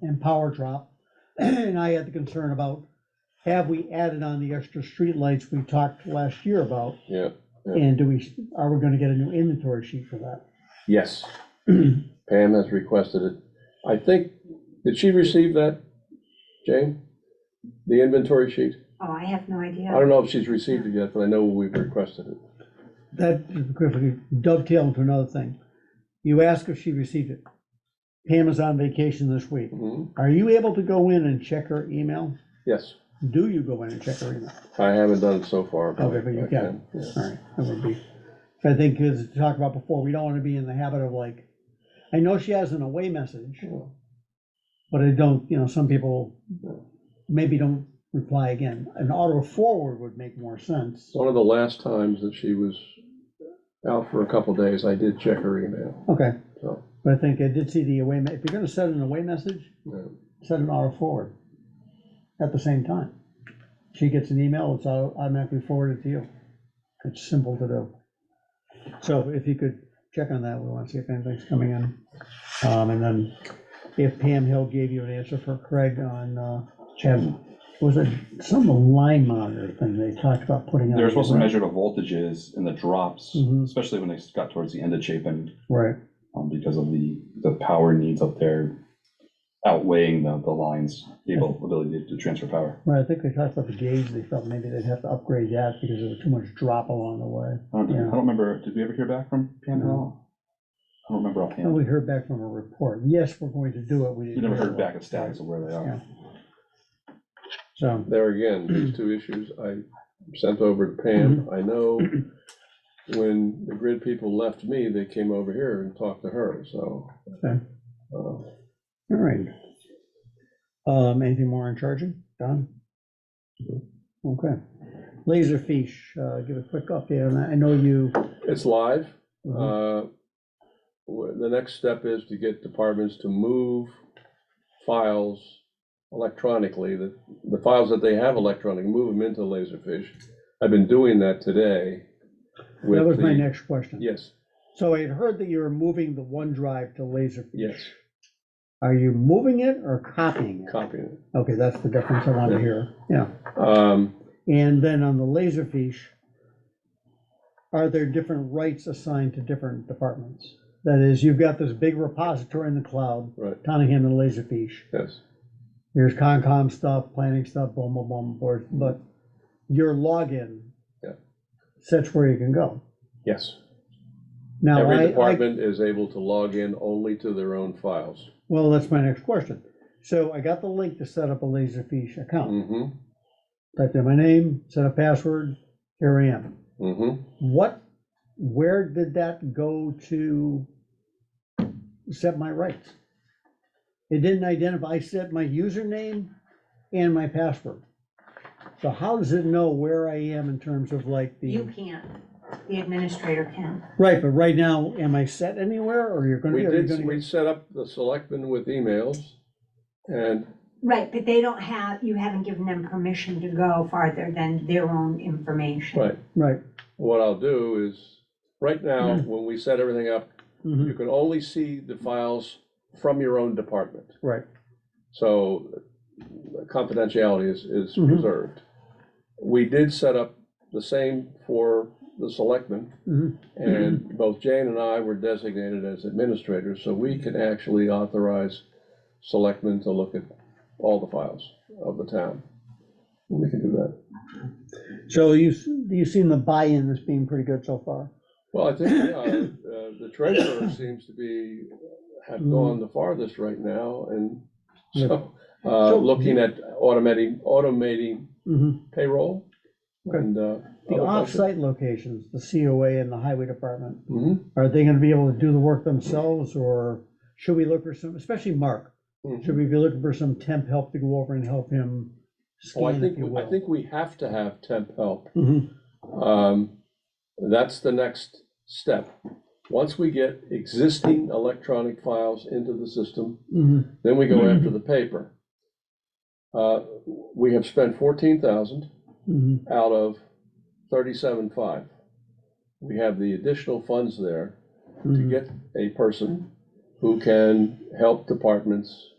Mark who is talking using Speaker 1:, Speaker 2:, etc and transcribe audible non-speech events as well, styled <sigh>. Speaker 1: and power drop. <clears throat> And I had the concern about, have we added on the extra streetlights we talked last year about?
Speaker 2: Yeah, yeah.
Speaker 1: And do we, are we gonna get a new inventory sheet for that?
Speaker 2: Yes. <clears throat> Pam has requested it. I think, did she receive that, Jane? The inventory sheet?
Speaker 3: Oh, I have no
Speaker 2: I
Speaker 3: idea.
Speaker 2: don't know if she's received it yet, but I know we've requested it.
Speaker 1: That quickly dovetail into another thing. You ask if she received it. Pam is on vacation this week.
Speaker 2: Mhm.
Speaker 1: Are you able to go in and check her email?
Speaker 2: Yes,
Speaker 1: Do you go in and check her email?
Speaker 2: I haven't done it so far. but
Speaker 1: Okay, but you
Speaker 2: I
Speaker 1: can,
Speaker 2: Oh, yeah.
Speaker 1: all right, that would be, I think as we talked about before, we don't wanna be in the habit of like, I know she has an away message,
Speaker 2: Yeah.
Speaker 1: but I don't, you know, some people maybe don't reply again. An auto forward would make more sense.
Speaker 2: One of the last times that she was out for a couple days, I did check her email,
Speaker 1: Okay,
Speaker 2: so.
Speaker 1: but I think I did see the away, me- if you're gonna send an away message,
Speaker 2: yeah.
Speaker 1: send an auto forward at the same time. She gets an email, it's au- automatically forwarded to you. It's simple to do. So if you could check on that, we want to see if anything's coming in. Um, and then if Pam Hill gave you an answer for Craig on, uh, Chad, was it some line monitor thing they talked about putting on?
Speaker 4: They were supposed to
Speaker 1: right?
Speaker 4: measure the voltages and the drops,
Speaker 1: Mhm.
Speaker 4: especially when they got towards the end of Chapin,
Speaker 1: Right,
Speaker 4: um, because of the, the power needs up there outweighing the, the lines, able ability to transfer power.
Speaker 1: right, I think they talked about the gauge, they felt maybe they'd have to upgrade that because there was too much drop along the way.
Speaker 4: I don't,
Speaker 1: Yeah.
Speaker 4: I don't remember, did we ever hear back from Pam at all? I don't remember
Speaker 1: And
Speaker 4: offhand.
Speaker 1: we heard back from a report, yes, we're going to do it, we
Speaker 4: We
Speaker 1: didn't.
Speaker 4: never heard
Speaker 1: hear
Speaker 4: back of status of where they
Speaker 1: Yeah.
Speaker 4: are.
Speaker 1: So,
Speaker 2: There again,
Speaker 1: <clears throat>
Speaker 2: these two issues I sent over to Pam.
Speaker 1: Mm-hmm.
Speaker 2: I know when the grid people left me, they came over here and talked to her, so.
Speaker 1: Okay.
Speaker 2: uh,
Speaker 1: all right. Um, anything more on charging? Done? Okay. Laserfish, uh, give a quick update on that. I know you,
Speaker 2: It's live.
Speaker 1: uh,
Speaker 2: Uh, wh- The next step is to get departments to move files electronically, the, the files that they have electronic, move them into Laserfish. I've been doing that today. with
Speaker 1: that was my
Speaker 2: the-
Speaker 1: next question.
Speaker 2: Yes,
Speaker 1: So I had heard that you were moving the OneDrive to Laserfish.
Speaker 2: yes,
Speaker 1: Are you moving it or copying it?
Speaker 2: copying it.
Speaker 1: Okay, that's the difference I wanted to hear. Yeah.
Speaker 2: Um,
Speaker 1: And then on the Laserfish, are there different rights assigned to different departments? That is, you've got this big repository in the cloud,
Speaker 2: Right,
Speaker 1: Tottingham and Laserfish.
Speaker 2: yes,
Speaker 1: here's Concom stuff, planning stuff, boom, boom, boom, board, but your login
Speaker 2: Yeah.
Speaker 1: sets where you can go.
Speaker 2: yes.
Speaker 1: Now,
Speaker 2: Every
Speaker 1: I, I,
Speaker 2: department is able to log in only to their own files.
Speaker 1: well, that's my next question. So I got the link to set up a Laserfish account.
Speaker 2: hmm
Speaker 1: Typed in my name, set a password, here I am.
Speaker 2: hmm
Speaker 1: What, where did that go to set my rights? It didn't identify, I set my username and my password. So how does it know where I am in terms of like the?
Speaker 3: You can't. The administrator can.
Speaker 1: Right, but right now, am I set anywhere or you're gonna?
Speaker 2: We
Speaker 1: are you
Speaker 2: did,
Speaker 1: gonna-
Speaker 2: we set up the selectmen with emails, and
Speaker 3: Right, but they don't have, you haven't given them permission to go farther than their own information.
Speaker 2: Right,
Speaker 1: Right,
Speaker 2: what I'll do is, right now,
Speaker 1: Hmm.
Speaker 2: when we set everything up,
Speaker 1: mhm,
Speaker 2: you can only see the files from your own department.
Speaker 1: right,
Speaker 2: So confidentiality is, is
Speaker 1: Mhm.
Speaker 2: preserved. We did set up the same for the selectmen,
Speaker 1: mhm,
Speaker 2: Mm-hmm. and both Jane and I were designated as administrators, so we can actually authorize selectmen to look at all the files of the town. We can do that.
Speaker 1: so you, s- you seen the buy-in as being pretty good so far?
Speaker 2: Well, I think, yeah, uh, the treasurer seems to be, have gone the farthest right now, and so, uh,
Speaker 1: So-
Speaker 2: looking at automating, automating
Speaker 1: Mhm.
Speaker 2: payroll
Speaker 1: Okay.
Speaker 2: and, uh.
Speaker 1: The
Speaker 2: other functions.
Speaker 1: off-site locations, the COA and the highway department,
Speaker 2: Mhm,
Speaker 1: are they gonna be able to do the work themselves or should we look for some, especially Mark?
Speaker 2: mhm.
Speaker 1: Should we be looking for some temp help to go over and help him
Speaker 2: Well, Oh, I
Speaker 1: scan, if
Speaker 2: think,
Speaker 1: you will?
Speaker 2: I think we have to have temp help.
Speaker 1: Mhm,
Speaker 2: Um, that's the next step. Once we get existing electronic files into the system,
Speaker 1: mhm,
Speaker 2: then we go after the paper. Uh, we have spent fourteen thousand.
Speaker 1: mhm.
Speaker 2: out of thirty-seven five. We have the additional funds there to
Speaker 1: Mhm.
Speaker 2: get a person who can help departments